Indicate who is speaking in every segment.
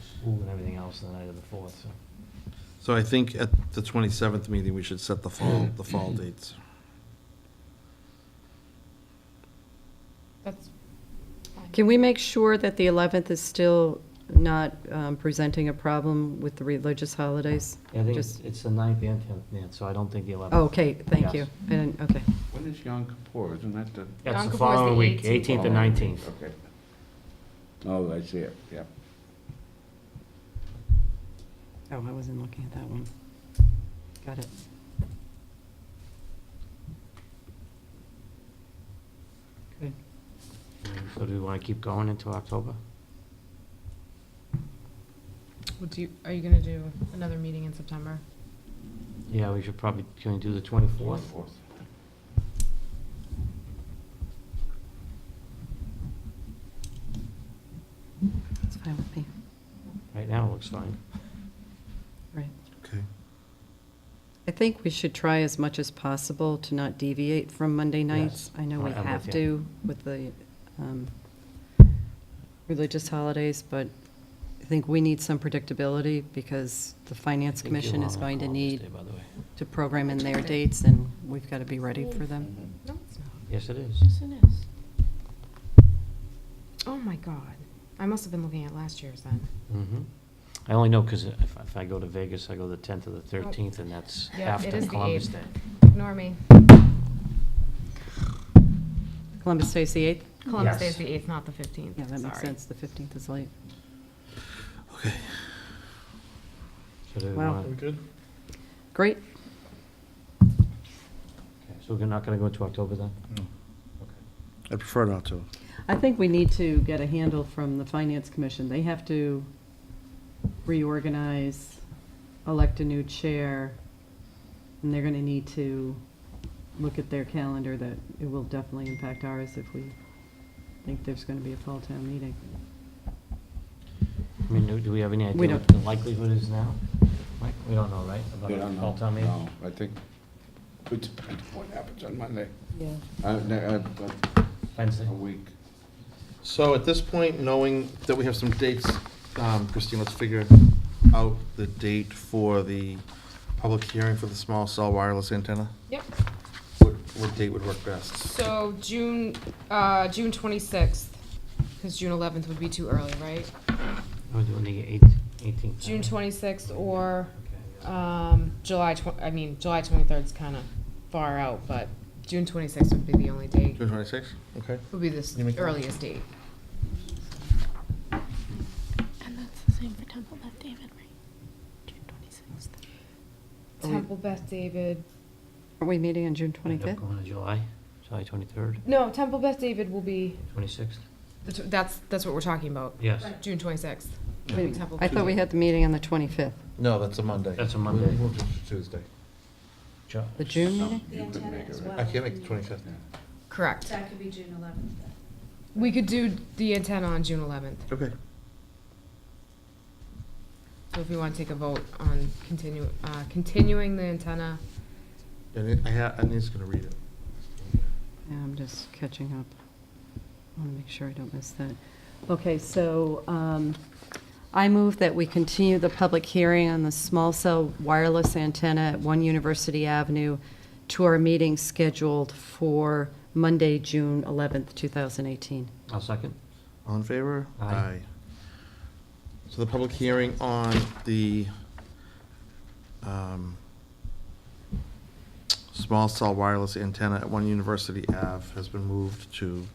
Speaker 1: school and everything else the night of the fourth, so.
Speaker 2: So I think at the 27th meeting, we should set the fall, the fall dates.
Speaker 3: That's fine.
Speaker 4: Can we make sure that the 11th is still not um, presenting a problem with the religious holidays?
Speaker 1: Yeah, I think it's,
Speaker 4: Just-
Speaker 1: it's the ninth and tenth, Nan, so I don't think the eleventh.
Speaker 4: Oh, Okay, thank you.
Speaker 1: Yes.
Speaker 4: I didn't, okay.
Speaker 5: When is Yom Kippur? Isn't that the?
Speaker 3: Yom
Speaker 1: That's
Speaker 3: Kippur's
Speaker 1: the
Speaker 3: the
Speaker 1: following week,
Speaker 3: 18th.
Speaker 1: eighteenth and nineteenth.
Speaker 5: Okay. Oh, I see it, yeah.
Speaker 4: Oh, I wasn't looking at that one. Got it.
Speaker 1: So do you want to keep going into October?
Speaker 3: Well, do you, are you gonna do another meeting in September?
Speaker 1: Yeah, we should probably, can we do the twenty-fourth?
Speaker 4: It's fine with me.
Speaker 1: Right now, it looks fine.
Speaker 4: Right.
Speaker 2: Okay.
Speaker 4: I think we should try as much as possible to not deviate from Monday
Speaker 1: Yes.
Speaker 4: nights.
Speaker 1: Oh,
Speaker 4: I know we
Speaker 1: I- I'm with
Speaker 4: have
Speaker 1: you.
Speaker 4: to with the um, religious holidays, but I think we need some predictability because the Finance Commission is going to need to program in their dates, and we've got to be ready for
Speaker 2: Mm-hmm.
Speaker 4: them.
Speaker 1: Mm-hmm.
Speaker 3: No, it's not.
Speaker 1: Yes, it is.
Speaker 3: Yes, it is. Oh, my God. I must have been looking at last year's then.
Speaker 1: Mhm. I only know because if, if I go to Vegas, I go the tenth or the thirteenth, and that's
Speaker 3: Yeah, it is
Speaker 1: after
Speaker 3: the
Speaker 1: Columbus
Speaker 3: eighth.
Speaker 1: Day.
Speaker 3: Ignore me.
Speaker 4: Columbus Day's the 8th?
Speaker 3: Columbus
Speaker 1: Yes.
Speaker 3: Day is the eighth, not the fifteenth.
Speaker 4: Yeah, that makes sense. The 15th is late.
Speaker 2: Okay.
Speaker 1: So do we
Speaker 4: Wow.
Speaker 1: wanna-
Speaker 4: Great.
Speaker 1: okay, So we're not going to go into October then?
Speaker 2: I prefer not to.
Speaker 4: I think we need to get a handle from the Finance Commission. They have to reorganize, elect a new chair, and they're going to need to look at their calendar that it will definitely impact ours if we think there's going to be a fall town meeting.
Speaker 1: I mean, do- do we have any
Speaker 4: We
Speaker 1: idea what
Speaker 4: don't.
Speaker 1: the likelihood is now? Mike, we don't know, right? About
Speaker 5: We
Speaker 1: the
Speaker 5: don't know.
Speaker 1: fall town meeting?
Speaker 5: No, I think, it depends on what happens on Monday.
Speaker 4: Yeah.
Speaker 5: Uh, no, uh, uh,
Speaker 1: Wednesday?
Speaker 5: A week.
Speaker 2: So at this point, knowing that we have some dates, um, Christine, let's figure out the date for the public hearing for the small cell wireless antenna.
Speaker 3: Yep.
Speaker 2: What, what date would work best?
Speaker 3: So June, uh, June twenty-sixth, because June eleventh would be too early, right?
Speaker 1: We're doing the eighth, eighteenth.
Speaker 3: June twenty-sixth or,
Speaker 1: Okay.
Speaker 3: um, July tw- I mean, July twenty-third's kinda far out, but June twenty-sixth would be the only date,
Speaker 2: June twenty-sixth? Okay.
Speaker 3: would be the
Speaker 2: You make that?
Speaker 3: earliest date.
Speaker 6: And that's the same for Temple Beth David, right? June twenty-sixth.
Speaker 4: Are we-
Speaker 3: Temple Beth David,
Speaker 4: Aren't we meeting on June
Speaker 1: End up
Speaker 4: 25th?
Speaker 1: Going to July, July twenty-third,
Speaker 3: no, Temple Beth David will be,
Speaker 1: twenty-sixth?
Speaker 3: the tw- that's, that's what we're talking about,
Speaker 1: Yes,
Speaker 3: June twenty-sixth.
Speaker 4: Wait a minute. I thought we had the meeting on the 25th,
Speaker 2: No, that's a Monday.
Speaker 1: That's a Monday.
Speaker 2: We moved it to Tuesday.
Speaker 1: Ju-
Speaker 4: the June meeting?
Speaker 5: You could make it, right?
Speaker 2: I can't make the twenty-fifth.
Speaker 3: Correct.
Speaker 7: That could be June eleventh then.
Speaker 3: We could do the antenna on June eleventh,
Speaker 2: Okay.
Speaker 3: so if we wanna take a vote on continue, uh, continuing the antenna,
Speaker 2: And I ha, I need to read it.
Speaker 4: Yeah, I'm just catching up. I want to make sure I don't miss that. Okay, so um, I move that we continue the public hearing on the small cell wireless antenna at One University Avenue to our meeting scheduled for Monday, June 11th, 2018.
Speaker 1: I'll second.
Speaker 2: All in favor?
Speaker 1: Aye.
Speaker 2: So the public hearing on the um, small cell wireless antenna at One University Ave has been moved to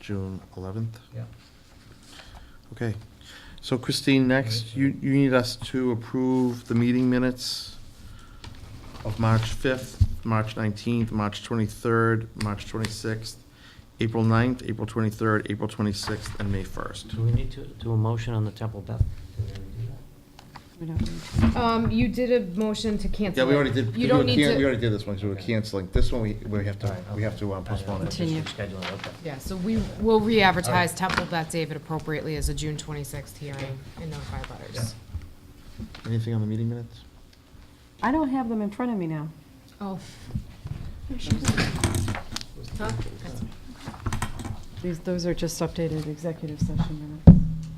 Speaker 2: June 11th?
Speaker 1: Yeah.
Speaker 2: Okay. So Christine, next, you, you need us to approve the meeting minutes of March 5th, March 19th, March 23rd, March 26th, April 9th, April 23rd, April 26th, and May 1st.
Speaker 1: Do we need to do a motion on the Temple Beth?
Speaker 4: We don't need-
Speaker 3: um, you did a motion to cancel.
Speaker 2: Yeah, we
Speaker 3: it.
Speaker 2: already did,
Speaker 3: You
Speaker 2: we
Speaker 3: don't
Speaker 2: were
Speaker 3: need
Speaker 2: can-
Speaker 3: to.
Speaker 2: we already did this one, so we're canceling. This one, we, we have to, we have to uh, postpone it.
Speaker 4: Continue.
Speaker 1: Schedule it, okay.
Speaker 3: Yeah, so we will re-advertise Temple Beth David appropriately as a June 26th hearing and notify butters.
Speaker 2: Anything on the meeting minutes?
Speaker 4: I don't have them in front of me now.
Speaker 3: Oh.
Speaker 4: These, those are just updated executive session minutes.